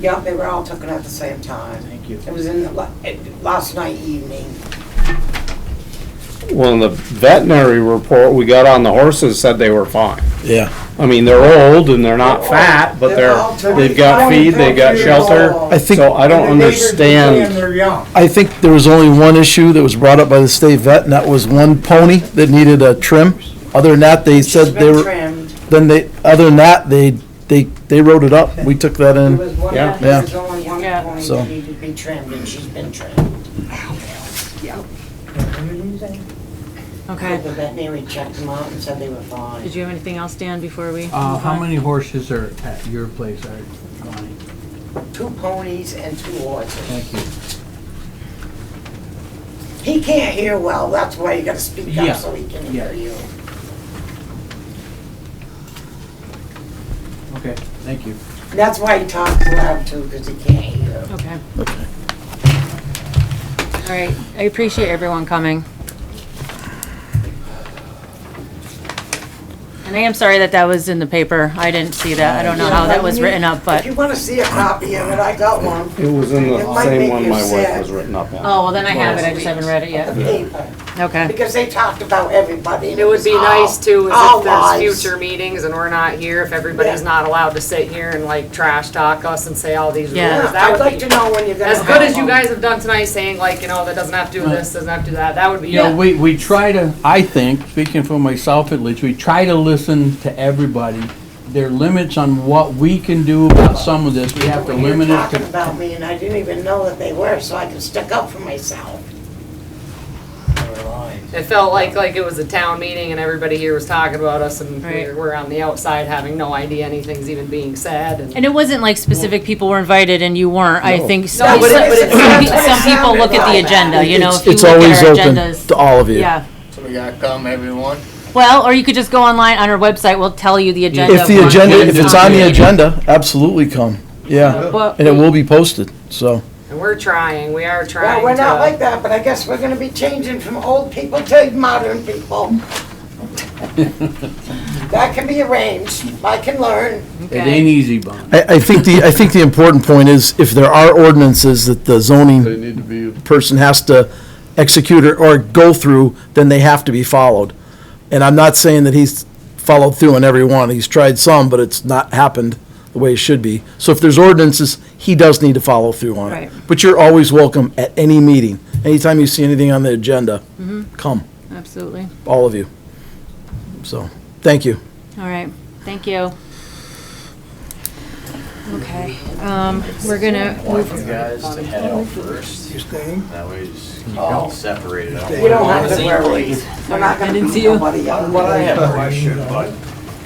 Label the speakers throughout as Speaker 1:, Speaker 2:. Speaker 1: Yep, they were all took it at the same time.
Speaker 2: Thank you.
Speaker 1: It was in, the la- it- last night evening.
Speaker 3: Well, in the veterinary report we got on the horses said they were fine.
Speaker 4: Yeah.
Speaker 3: I mean, they're old and they're not fat, but
Speaker 1: They're
Speaker 3: they're,
Speaker 1: all
Speaker 3: they've got
Speaker 1: 25,
Speaker 3: feed, they've got
Speaker 1: 30
Speaker 3: shelter.
Speaker 1: years old.
Speaker 4: I think-
Speaker 3: So I don't
Speaker 2: And the neighbors were saying
Speaker 3: understand,
Speaker 2: They're young.
Speaker 4: I think there was only one issue that was brought up by the state vet, and that was one pony that needed a trim. Other than that, they
Speaker 1: She's
Speaker 4: said they
Speaker 1: been
Speaker 4: were,
Speaker 1: trimmed.
Speaker 4: then they, other than that, they, they, they wrote it up. We took that
Speaker 1: There
Speaker 4: in.
Speaker 1: was one,
Speaker 3: Yeah.
Speaker 1: there was only one point
Speaker 4: So-
Speaker 1: that needed to be trimmed and she's been trimmed. The
Speaker 2: Uh,
Speaker 5: Okay.
Speaker 1: veterinary checked them out and said they were fine.
Speaker 5: Did you have anything else, Dan, before we?
Speaker 2: Uh,
Speaker 5: move
Speaker 2: how
Speaker 5: on?
Speaker 2: many horses are at your place, Art? Lonnie?
Speaker 1: Two ponies and two horses.
Speaker 2: Thank you.
Speaker 1: He can't hear well, that's why you gotta speak
Speaker 2: Yeah.
Speaker 1: up so he can hear
Speaker 2: Yeah.
Speaker 1: you.
Speaker 2: Okay, thank you.
Speaker 1: And That's why he talks loud too, because he can't hear.
Speaker 5: Okay. All right, I appreciate everyone coming. And I am sorry that that was in the paper. I didn't see that. I don't know how that was written up,
Speaker 1: If
Speaker 5: but, oh,
Speaker 1: you wanna see a copy of it, I got one.
Speaker 3: it was in
Speaker 1: It
Speaker 3: the
Speaker 1: might
Speaker 3: same
Speaker 1: make
Speaker 3: one
Speaker 1: you
Speaker 3: my wife
Speaker 1: sad.
Speaker 3: was written up in.
Speaker 5: oh, well, then I have it. I just haven't read it
Speaker 1: The
Speaker 5: yet.
Speaker 1: paper,
Speaker 5: Okay.
Speaker 1: because they talked about everybody.
Speaker 6: It would be nice too, is
Speaker 1: All
Speaker 6: if there's
Speaker 1: lies.
Speaker 6: future meetings and we're not here, if everybody's
Speaker 1: Oh, Yeah.
Speaker 6: not allowed to sit here and like trash talk us and say all these rules.
Speaker 5: Yeah.
Speaker 1: Yeah,
Speaker 6: That
Speaker 1: I'd like
Speaker 6: would be,
Speaker 1: to know when you're gonna.
Speaker 6: as good
Speaker 1: have
Speaker 6: as you
Speaker 1: one.
Speaker 6: guys have done tonight, saying like, you know, that doesn't have to do this, doesn't have to do that, that would be.
Speaker 2: You know, we, we try to, I think, speaking for myself at least, we try to listen to everybody. There are limits on what we can do about some of this. We have to
Speaker 1: When you're
Speaker 2: limit it
Speaker 1: talking
Speaker 2: to,
Speaker 1: about me, and I didn't even know that they were, so I can stick up for myself.
Speaker 6: It felt like, like it was a town meeting and everybody here was talking about us and we're,
Speaker 5: Right.
Speaker 6: we're on the outside having no idea anything's even being said and.
Speaker 5: And it wasn't like specific people were invited and you weren't. I think some,
Speaker 6: No, but it- but it
Speaker 5: some
Speaker 6: sounded-
Speaker 5: some people look at the
Speaker 1: it sounded like that.
Speaker 5: agenda, you know,
Speaker 4: It's-
Speaker 5: if you
Speaker 4: it's
Speaker 5: look
Speaker 4: always
Speaker 5: at our
Speaker 4: open
Speaker 5: agendas.
Speaker 4: To all of you.
Speaker 5: Yeah.
Speaker 7: So we gotta come, everyone.
Speaker 5: Well, or you could just go online on our website. We'll tell you the agenda.
Speaker 4: If the
Speaker 5: of
Speaker 4: agenda,
Speaker 5: what-
Speaker 4: if it's on the agenda, absolutely come. Yeah.
Speaker 5: What-
Speaker 4: And it will be posted, so.
Speaker 6: And we're trying, we are trying
Speaker 1: Well,
Speaker 6: to.
Speaker 1: we're not like that, but I guess we're gonna be changing from old people to modern people. That can be arranged, I can learn.
Speaker 2: it ain't easy, Bob.
Speaker 4: I, I think the, I think the important point is if there are ordinances that the zoning
Speaker 7: need to be.
Speaker 4: person has to execute or, or go through, then they have to be followed. And I'm not saying that he's followed through on every one. He's tried some, but it's not happened the way it should be. So if there's ordinances, he does need to follow through on
Speaker 5: Right.
Speaker 4: it. But you're always welcome at any meeting. Anytime you see anything on the agenda, come,
Speaker 5: Absolutely.
Speaker 4: all of you. So, thank you.
Speaker 5: All right, thank you. Okay, um, we're gonna move,
Speaker 7: You guys to head out first. You staying? That way you just keep all separated.
Speaker 1: We don't have to worry, we're not gonna
Speaker 5: didn't
Speaker 1: beat
Speaker 5: see you.
Speaker 1: nobody up.
Speaker 8: Well, I have a question, but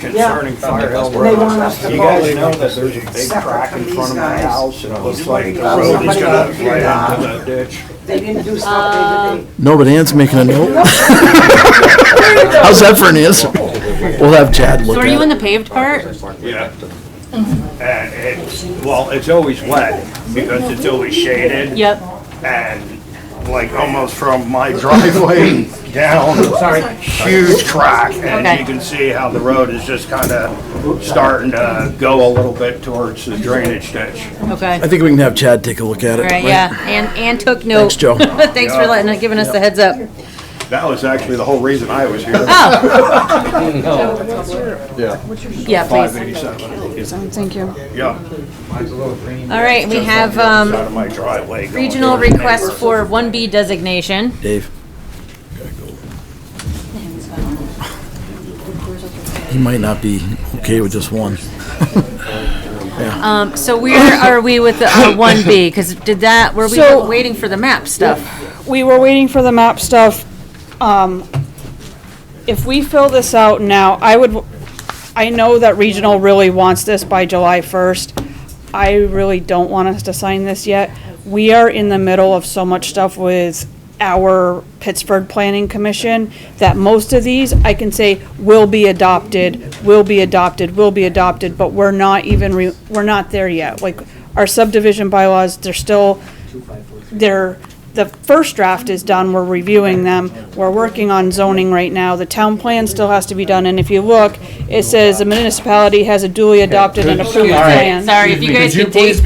Speaker 8: concerning Fire Hill
Speaker 1: They want
Speaker 8: Road.
Speaker 1: us to
Speaker 8: You
Speaker 1: vote.
Speaker 8: guys know that there's a big
Speaker 1: Separate
Speaker 8: crack
Speaker 1: from
Speaker 8: in front
Speaker 1: these
Speaker 8: of my
Speaker 1: guys.
Speaker 8: house and it looks like the
Speaker 1: Well,
Speaker 8: road is
Speaker 1: somebody
Speaker 8: gonna
Speaker 1: up here,
Speaker 8: right into that ditch.
Speaker 1: They didn't do
Speaker 6: Um,
Speaker 1: something
Speaker 4: No, but Ann's making a note. How's that for an answer? We'll have Chad
Speaker 5: so
Speaker 4: look
Speaker 5: are
Speaker 4: at
Speaker 5: you in
Speaker 4: it.
Speaker 5: the paved part?
Speaker 8: Yeah. And it's, well, it's always wet because it's always shaded
Speaker 5: Yep,
Speaker 8: and like almost from my driveway down, huge crack.
Speaker 5: Okay.
Speaker 8: And you can see how the road is just kinda starting to go a little bit towards the drainage ditch.
Speaker 5: okay,
Speaker 4: I think we can have Chad take a look at it.
Speaker 5: all right, yeah, and, and took note.
Speaker 4: Thanks, Joe.
Speaker 5: Thanks for letting, giving us the heads up.
Speaker 8: That was actually the whole reason I was here.
Speaker 5: Oh,
Speaker 7: Yeah.
Speaker 5: yeah, please.
Speaker 8: 587.
Speaker 5: Thank you.
Speaker 8: Yeah.
Speaker 5: All right, we have, um,
Speaker 8: Out of my driveway. going
Speaker 5: regional
Speaker 8: towards the
Speaker 5: request
Speaker 8: neighbor.
Speaker 5: for one B designation.
Speaker 4: Dave. He might not be okay with just one.
Speaker 5: Um, so where are we with the uh, one B? Because did that, were we
Speaker 9: So-
Speaker 5: waiting for the map stuff?
Speaker 9: we were waiting for the map stuff. Um, if we fill this out now, I would, I know that regional really wants this by July first. I really don't want us to sign this yet. We are in the middle of so much stuff with our Pittsburgh Planning Commission that most of these, I can say, will be adopted, will be adopted, will be adopted, but we're not even, re- we're not there yet. Like, our subdivision bylaws, they're still, they're, the first draft is done, we're reviewing them, we're working on zoning right now, the town plan still has to be done, and if you look, it says the municipality has a duly adopted and approved
Speaker 2: All right.
Speaker 9: plan.
Speaker 5: Sorry, if you guys could take.